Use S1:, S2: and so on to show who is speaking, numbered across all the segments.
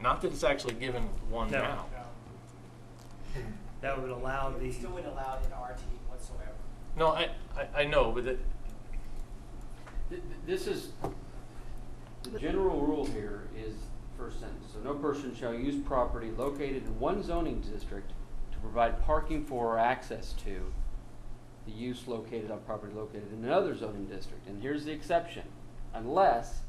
S1: Not that it's actually given one
S2: No.
S1: now.
S2: That would allow the,
S3: It's still wouldn't allow it in RT whatsoever.
S1: No, I, I, I know, but it,
S4: Th- th- This is, the general rule here is first sentence, so no person shall use property located in one zoning district to provide parking for or access to the use located on property located in another zoning district, and here's the exception, unless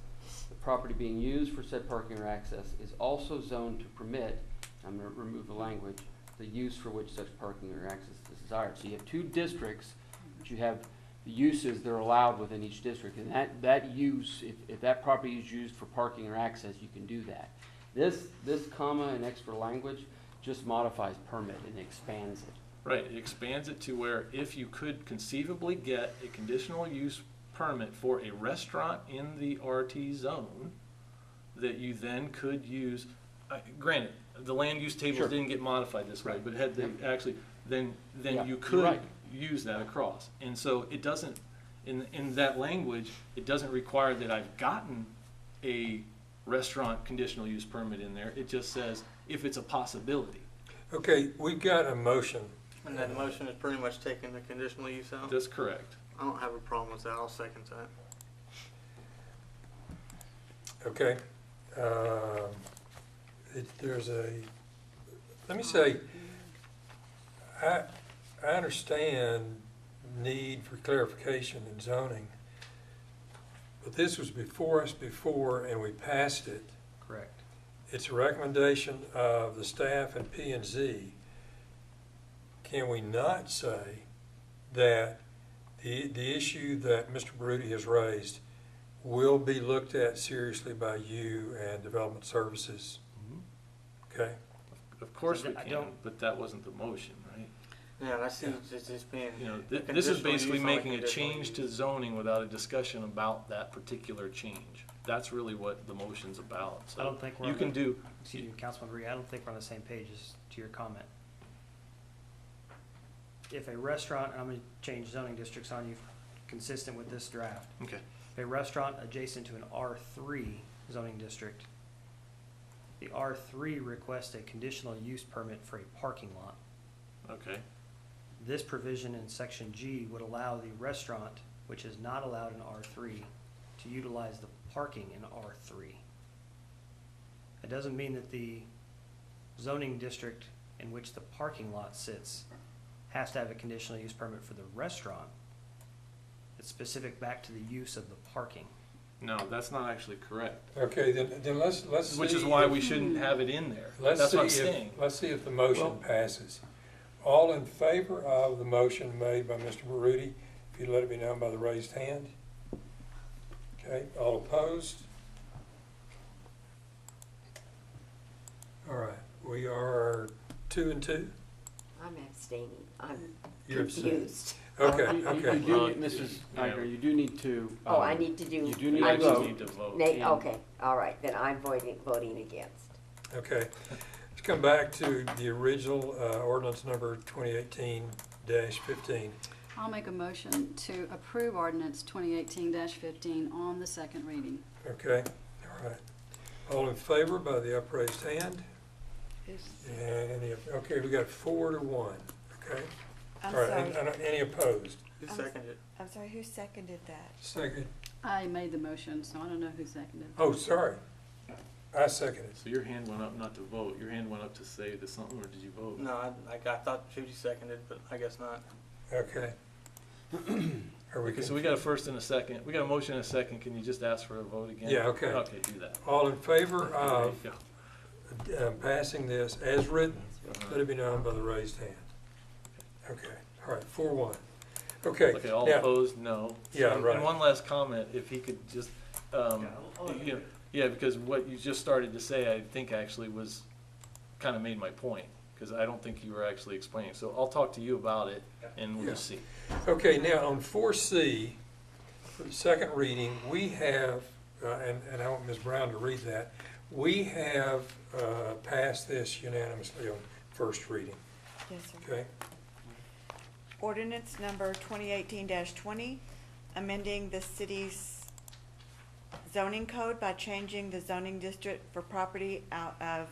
S4: the property being used for said parking or access is also zoned to permit, I'm gonna remove the language, the use for which such parking or access is desired, so you have two districts, but you have the uses that are allowed within each district, and that, that use, if, if that property is used for parking or access, you can do that. This, this comma and extra language just modifies permit and expands it.
S1: right, it expands it to where if you could conceivably get a conditional use permit for a restaurant in the RT zone, that you then could use, uh, granted, the land use
S4: Sure.
S1: tables didn't get modified this way,
S4: Right.
S1: but had they actually, then,
S4: Yeah,
S1: then you
S4: you're
S1: could
S4: right.
S1: use that across. And so it doesn't, in, in that language, it doesn't require that I've gotten a restaurant conditional use permit in there. It just says if it's a possibility.
S5: Okay, we've got a motion.
S6: And that motion is pretty much taking the conditional use out.
S1: That's correct.
S6: I don't have a problem with that. I'll second that.
S5: Okay. Um, it- There's a, let me say, I, I understand need for clarification in zoning, but this was before us before and we passed it.
S1: Correct.
S5: It's a recommendation of the staff and P and Z. Can we not say that the, the issue that Mr. Baruti has raised will be looked at seriously by you and Development Services?
S4: Mm-hmm.
S5: Okay?
S1: Of course we
S2: I
S1: can,
S2: don't-
S1: but that wasn't the motion, right?
S6: Yeah, I see it's just being.
S1: You know, thi-
S6: a
S1: this is
S6: conditional
S1: basically
S6: use on
S1: making a
S6: conditional
S1: change
S6: use.
S1: to zoning without a discussion about that particular change. That's really what the motion's about, so.
S2: I don't think we're
S1: You
S2: on
S1: can
S2: the-
S1: do,
S2: excuse me, Councilman Reed, I don't think we're on the same page as to your comment. If a restaurant, I'm gonna change zoning districts on you consistent with this draft.
S1: okay,
S2: If a restaurant adjacent to an R three zoning district, the R three requests a conditional use permit for a parking lot.
S1: okay,
S2: This provision in section G would allow the restaurant, which is not allowed in R three, to utilize the parking in R three. It doesn't mean that the zoning district in which the parking lot sits has to have a conditional use permit for the restaurant. It's specific back to the use of the parking.
S1: no, that's not actually correct,
S5: Okay, then, then let's, let's
S1: which is
S5: see
S1: why
S5: if-
S1: we shouldn't have it in there.
S5: Let's
S1: That's
S5: see
S1: what I'm
S5: if,
S1: saying.
S5: let's see if the motion passes. All in favor of the motion made by Mr. Baroody, if you'd let it be known by the raised hand. Okay, all opposed? All right, we are two and two?
S7: I'm abstaining. I'm
S5: You're abstaining.
S7: confused.
S5: Okay,
S4: Uh, You- you- You
S5: okay.
S4: do,
S1: Well,
S4: need- Mrs.
S1: yeah.
S4: Iger, you do need to.
S7: Oh,
S4: um,
S7: I need to do.
S4: You do need
S1: You
S7: I
S4: to
S7: vote.
S1: actually
S4: vote.
S1: need to vote.
S7: Nay,
S4: and-
S7: okay, all right, then I'm voting, voting against.
S5: Okay, let's come back to the original uh, ordinance number 2018-15.
S8: I'll make a motion to approve ordinance 2018-15 on the second reading.
S5: Okay, all right. All in favor by the upraised hand? And any, okay, we got four to one, okay?
S9: I'm
S5: All right, and-
S9: sorry,
S5: and Any opposed?
S6: You
S9: I'm-
S6: second it.
S9: I'm sorry, who seconded that?
S5: Second,
S8: I made the motion, so I don't know who seconded.
S5: oh, sorry. I seconded.
S1: So your hand went up not to vote, your hand went up to say that something, or did you vote?
S6: No, I, like, I thought Judy seconded, but I guess not.
S5: Okay. Are we,
S1: Okay, so we got a first and a second, we got a motion and a second, can you just ask for a vote again?
S5: Yeah, okay.
S1: Okay, do that.
S5: all in favor
S1: There you
S5: of
S1: go.
S5: uh, passing this as written? Let it be known by the raised hand. Okay, all right, four one. Okay.
S1: Okay, all
S5: now-
S1: opposed, no.
S5: Yeah,
S1: And-
S5: right.
S1: And one last comment, if he could just, um, you know, yeah, because what you just started to say, I think actually was, kind of made my point, because I don't think you were actually explaining. So I'll talk to you about it, and we'll
S5: Yeah.
S1: just see.
S5: Okay, now on four C, for the second reading, we have, uh, and, and I want Ms. Brown to read that. We have, uh, passed this unanimously on first reading,
S9: Yes, sir.
S5: okay?
S9: Ordinance number twenty eighteen twenty, amending the city's zoning code by changing the zoning district for property out of